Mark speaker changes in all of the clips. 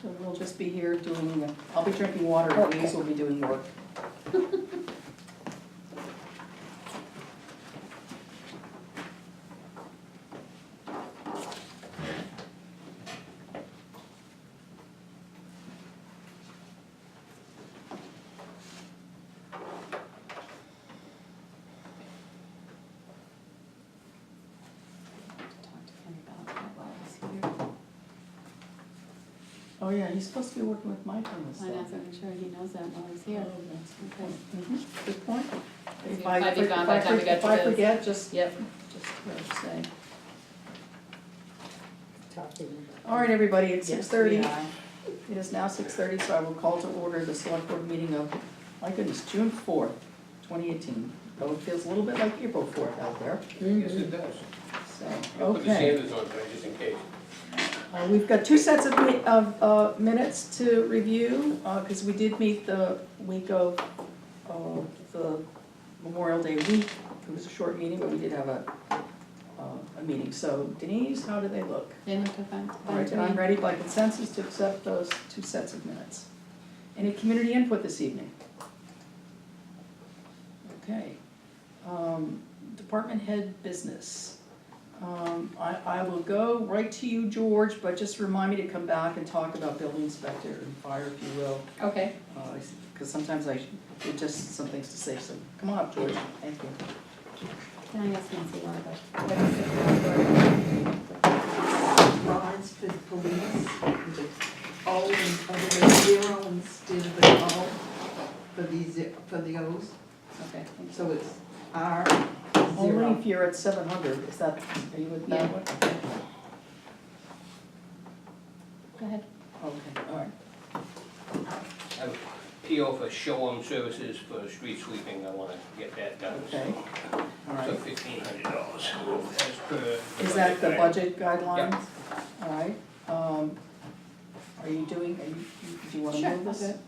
Speaker 1: So we'll just be here doing, I'll be drinking water, and Louise will be doing work.
Speaker 2: Talk to him about that while he's here.
Speaker 1: Oh, yeah, he's supposed to be working with Mike on this
Speaker 2: I
Speaker 1: stuff.
Speaker 2: know, so I'm sure he knows that while he's here.
Speaker 1: Oh, that's-
Speaker 2: Okay.
Speaker 1: mhm, Good point.
Speaker 2: If
Speaker 1: If I,
Speaker 2: I'd be
Speaker 1: if
Speaker 2: gone by
Speaker 1: I,
Speaker 2: the time we got
Speaker 1: if
Speaker 2: to
Speaker 1: I
Speaker 2: this.
Speaker 1: forget, just,
Speaker 2: Yep.
Speaker 1: just uh, say.
Speaker 3: talking about.
Speaker 1: All right, everybody, it's six
Speaker 2: Yes,
Speaker 1: thirty.
Speaker 2: we are.
Speaker 1: It is now six thirty, so I will call to order the select board meeting of, my goodness, June fourth, twenty eighteen. Though it feels a little bit like April fourth out there,
Speaker 4: Yes, it does.
Speaker 1: so,
Speaker 4: I'll put the
Speaker 1: okay.
Speaker 4: sanders on, there just in case.
Speaker 1: Uh, We've got two sets of mi- of, uh, minutes to review, uh 'cause cause we did meet the week of, uh, the Memorial Day week. It was a short meeting, but we did have a, uh, a meeting, so Denise, how do they look?
Speaker 2: They looked up fine.
Speaker 1: All right, and I'm ready by consensus to accept those two sets of minutes. Any community input this evening? Okay. Um, Department head business. Um, I, I will go right to you, George, but just remind me to come back and talk about building inspector and fire, if you will. Uh,
Speaker 2: Okay.
Speaker 1: Because sometimes I, it just some things to say, so come on up, George, thank you.
Speaker 2: Can I ask Nancy one of
Speaker 3: Bonds for the police, all and other zero instead of an all for these, for the O's,
Speaker 2: Okay, thank you.
Speaker 3: so it's R
Speaker 1: Only
Speaker 3: zero.
Speaker 1: if you're at seven hundred, is that, are you with that
Speaker 2: Yeah.
Speaker 1: one?
Speaker 2: Go ahead.
Speaker 1: Okay, all right.
Speaker 4: I have a PO for Showham Services for street sweeping, I wanna get that done, so.
Speaker 1: Okay. All
Speaker 4: So
Speaker 1: right,
Speaker 4: fifteen hundred dollars, as per.
Speaker 1: is that the budget guidelines?
Speaker 4: Yeah.
Speaker 1: All right, um, are you doing, are you, do you
Speaker 2: Sure,
Speaker 1: wanna move this?
Speaker 2: I'll do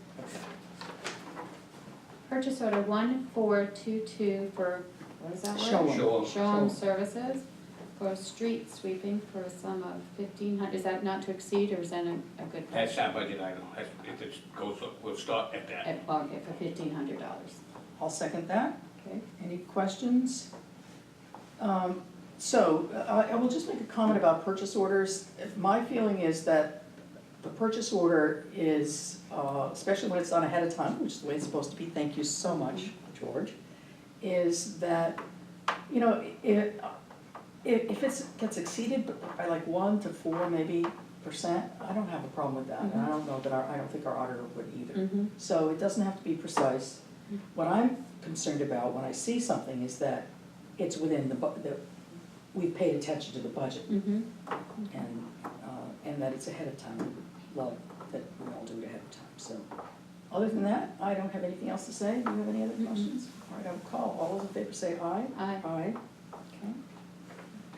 Speaker 2: Purchase order one four two two for, what is that word?
Speaker 1: Show 'em.
Speaker 4: Showham,
Speaker 2: Showham Services for street sweeping for a sum of fifteen hundred, is that not to exceed or is that a, a good?
Speaker 4: that's our budget item, that's, if it goes, up, we'll start at that.
Speaker 2: At, well, for fifteen hundred dollars.
Speaker 1: I'll second that,
Speaker 2: Okay.
Speaker 1: any questions? Um, so, I, I will just make a comment about purchase orders, my feeling is that the purchase order is, uh, especially when it's done ahead of time, which is the way it's supposed to be, thank you so much, George, is that, you know, it, if, if it's, gets exceeded by like one to four maybe percent, I don't have a problem with that, and I don't know that our, I don't think our auditor would either.
Speaker 2: Mm-hmm.
Speaker 1: So it doesn't have to be precise. What I'm concerned about when I see something is that it's within the, bu- that we've paid attention to the budget
Speaker 2: Mm-hmm.
Speaker 1: and, uh, and that it's ahead of time. We Love that we all do it ahead of time, so. Other than that, I don't have anything else to say. Do you have any other
Speaker 2: Mm-mm.
Speaker 1: questions? All right, I will call. All those in favor say aye.
Speaker 2: Aye.
Speaker 1: Aye. Okay.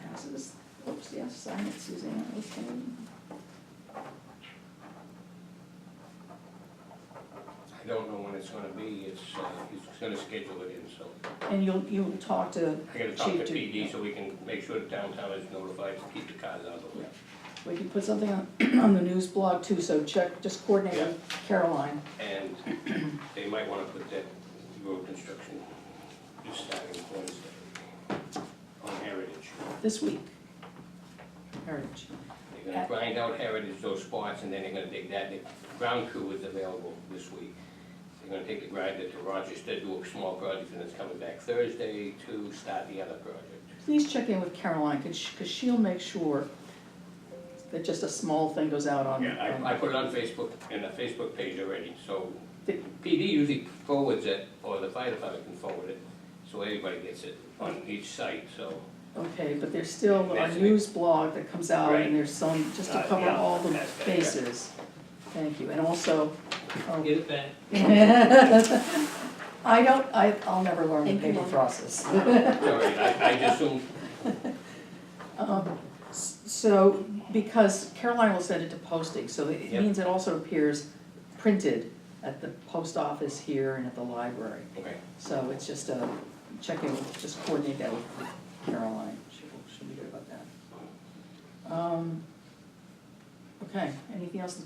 Speaker 1: Passes. Oops, yes, sign it, Suzanne, okay.
Speaker 4: I don't know when it's gonna be, it's, uh, he's gonna schedule it in, so.
Speaker 1: And you'll, you'll talk to
Speaker 4: I gotta talk to
Speaker 1: Chief to-
Speaker 4: PD so we can make sure the downtown is notified to keep the cars out of the way.
Speaker 1: We can put something on, on the news blog too, so check, just coordinate with Caroline.
Speaker 4: And they might wanna put that road construction, just starting Wednesday, on Heritage.
Speaker 1: this week. Heritage.
Speaker 4: They're gonna grind out Heritage, those spots, and then they're gonna take that, the ground crew is available this week. They're gonna take the grinder to Rochester, do a small project, and it's coming back Thursday to start the other project.
Speaker 1: Please check in with Caroline, cause she, cause she'll make sure that just a small thing goes out on.
Speaker 4: Yeah,
Speaker 1: on-
Speaker 4: I, I put it on Facebook, in the Facebook page already, so
Speaker 1: Did-
Speaker 4: PD usually forwards it, or the fire department can forward it, so everybody gets it on each site, so.
Speaker 1: Okay, but there's still a
Speaker 4: That's it.
Speaker 1: news blog that comes out
Speaker 4: Right.
Speaker 1: and there's some, just to
Speaker 4: Uh,
Speaker 1: cover
Speaker 4: yeah,
Speaker 1: all the
Speaker 4: that's it, yeah.
Speaker 1: bases. Thank you, and also, um,
Speaker 4: Get it back.
Speaker 1: I don't, I, I'll never learn the
Speaker 2: Thank you,
Speaker 1: paper
Speaker 2: Mom.
Speaker 1: process.
Speaker 4: Sorry, I, I just assumed,
Speaker 1: Um, s- So, because Caroline will send it to posting, so it
Speaker 4: Yep.
Speaker 1: means it also appears printed at the post office here and at the library.
Speaker 4: okay,
Speaker 1: So it's just a, check in, just coordinate that with Caroline, she'll, she'll be good about that. Um, Okay, anything else that you